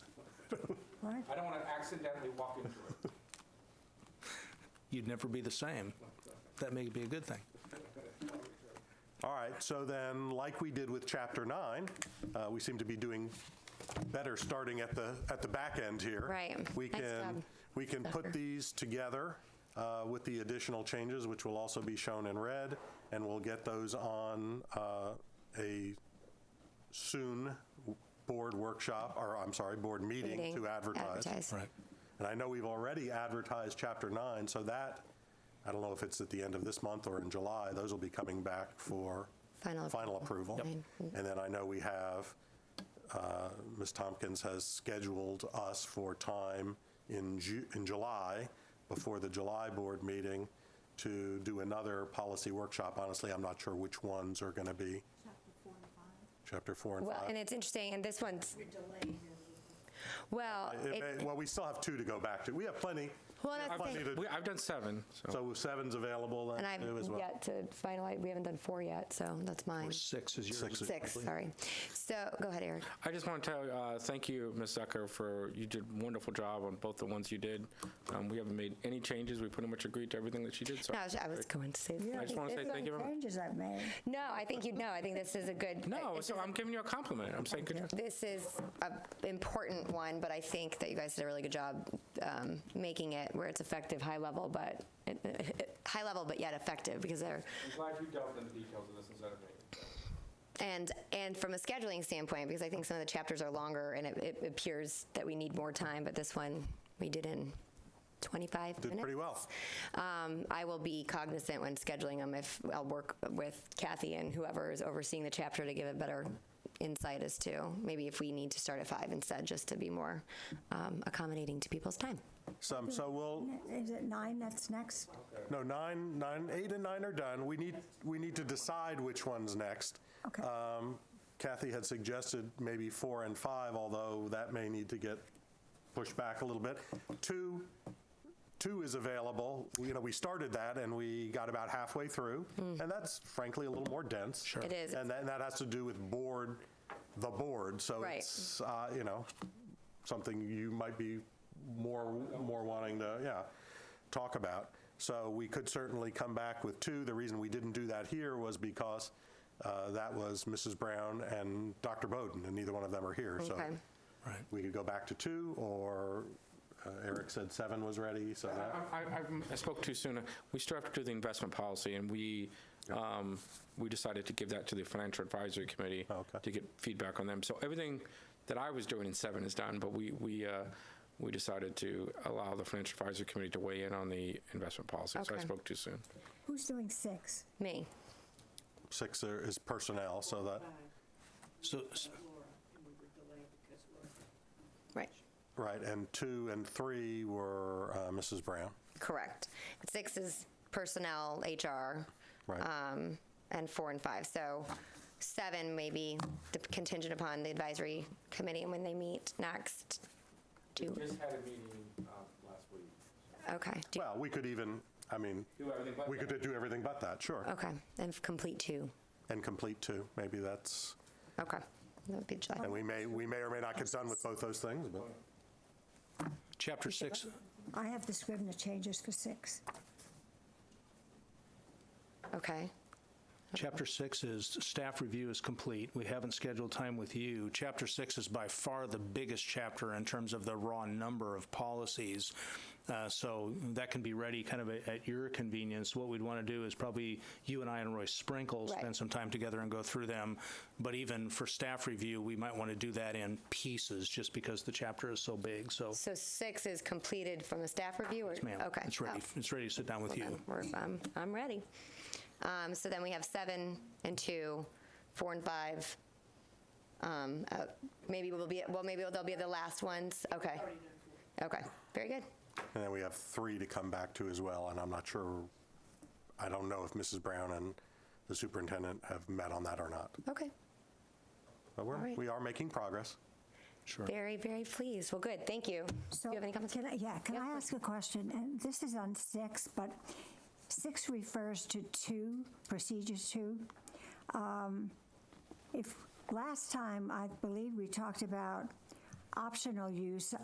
Why? I don't want to accidentally walk into it. You'd never be the same. That may be a good thing. All right, so then, like we did with Chapter 9, uh, we seem to be doing better starting at the, at the back end here. Right. We Nice can, job. we can put these together uh, with the additional changes, which will also be shown in red, and we'll get those on uh, a soon board workshop, or I'm sorry, board meeting Meeting, to advertise. advertise. Right. And I know we've already advertised Chapter 9, so that, I don't know if it's at the end of this month or in July, those will be coming back for Final final approval. Mm-hmm. approval. Yep. And then I know we have, uh, Ms. Tompkins has scheduled us for time in Ju, in July, before the July board meeting, to do another policy workshop. Honestly, I'm not sure which ones are going to be. Chapter 4 and 5. Well, and it's interesting, and this one's. Well, It it- may- Well, we still have two to go back to. We have plenty, well, and I plenty think- to We, I've done seven, so So seven's available and then I've too as well? yet to finalize, we haven't done four yet, so that's mine. six is yours. Six, sorry. So, go ahead, Eric. I just want to tell, uh, thank you, Ms. Zucker, for, you did a wonderful job on both the ones you did. Um, We haven't made any changes. We pretty much agreed to everything that she did, so. No, I was- I was going to say. I just want to say There's thank you. no very much. changes I've made. No, I think you, no, I think this is a good. uh, No, this so is a- I'm giving you a compliment. I'm saying, good job. This is an important one, but I think that you guys did a really good job um, making it where it's effective, high level, but, high level, but yet effective, because they're, I'm glad you delved into details of this instead of me. And, and from a scheduling standpoint, because I think some of the chapters are longer and it, it appears that we need more time, but this one we did in 25 minutes. Did pretty well. Um, I will be cognizant when scheduling them if I'll work with Kathy and whoever is overseeing the chapter to give a better insight as to maybe if we need to start at five instead, just to be more um, accommodating to people's time. Some, so we'll, Is it nine that's next? no, nine, nine, eight and nine are done. We need, we need to decide which one's next. Okay. Uh, Um, Kathy had suggested maybe four and five, although that may need to get pushed back a little bit. Two, two is available. You know, we started that and we got about halfway through, and that's frankly a little more dense. Sure. Hmm. It is. And that, and that has to do with board, the board, so Right. it's, uh, you know, something you might be more, more wanting to, yeah, talk about. So we could certainly come back with two. The reason we didn't do that here was because uh, that was Mrs. Brown and Dr. Bowden, and neither one of them are here, so. Okay. Right. We could go back to two, or uh, Eric said seven was ready, so that. I, I- I'm- I spoke too soon. We still have to do the investment policy, and we, um, we decided to give that to the Financial Advisory Committee Okay. to get feedback on them. So everything that I was doing in seven is done, but we, we, uh, we decided to allow the Financial Advisory Committee to weigh in on the investment policy, so I Okay. spoke too soon. Who's doing six? Me. Six are- is personnel, so that, So, s- Right. right, and two and three were uh, Mrs. Brown. Correct. Six is personnel, HR. Right. um, And four and five. So seven may be de- contingent upon the advisory committee and when they meet next. Do, Just had a meeting um, last week. okay, do, Well, we could even, I mean, Do everything but we that. could do everything but that, sure. okay, and complete two. And complete two, maybe that's, Okay, that would be July. and we may, we may or may not get done with both those things, but chapter six, I have the Scrivener changes for six. Okay, chapter six is staff review is complete. We haven't scheduled time with you. Chapter six is by far the biggest chapter in terms of the raw number of policies. Uh, so that can be ready kind of at, at your convenience. What we'd want to do is probably you and I and Roy Sprinkle Right. spend some time together and go through them. But even for staff review, we might want to do that in pieces just because the chapter is so big. So so six is completed from a staff review or? ma'am. Okay. It's ready, Oh, it's ready to sit down with you. then we're- I'm, I'm ready. Um, So then we have seven and two, four and five. Um, uh, Maybe we'll be, well, maybe they'll be the last ones, okay. Okay, very good. and then we have three to come back to as well, and I'm not sure, I don't know if Mrs. Brown and the superintendent have met on that or not. Okay, But we're, right. we are making progress. very, very pleased. Well, good, thank you. Do So you have any comments? Can I, yeah, can Yeah, I please. ask a question? And this is on six, but six refers to two, procedure two. Um, If, last time, I believe we talked about optional use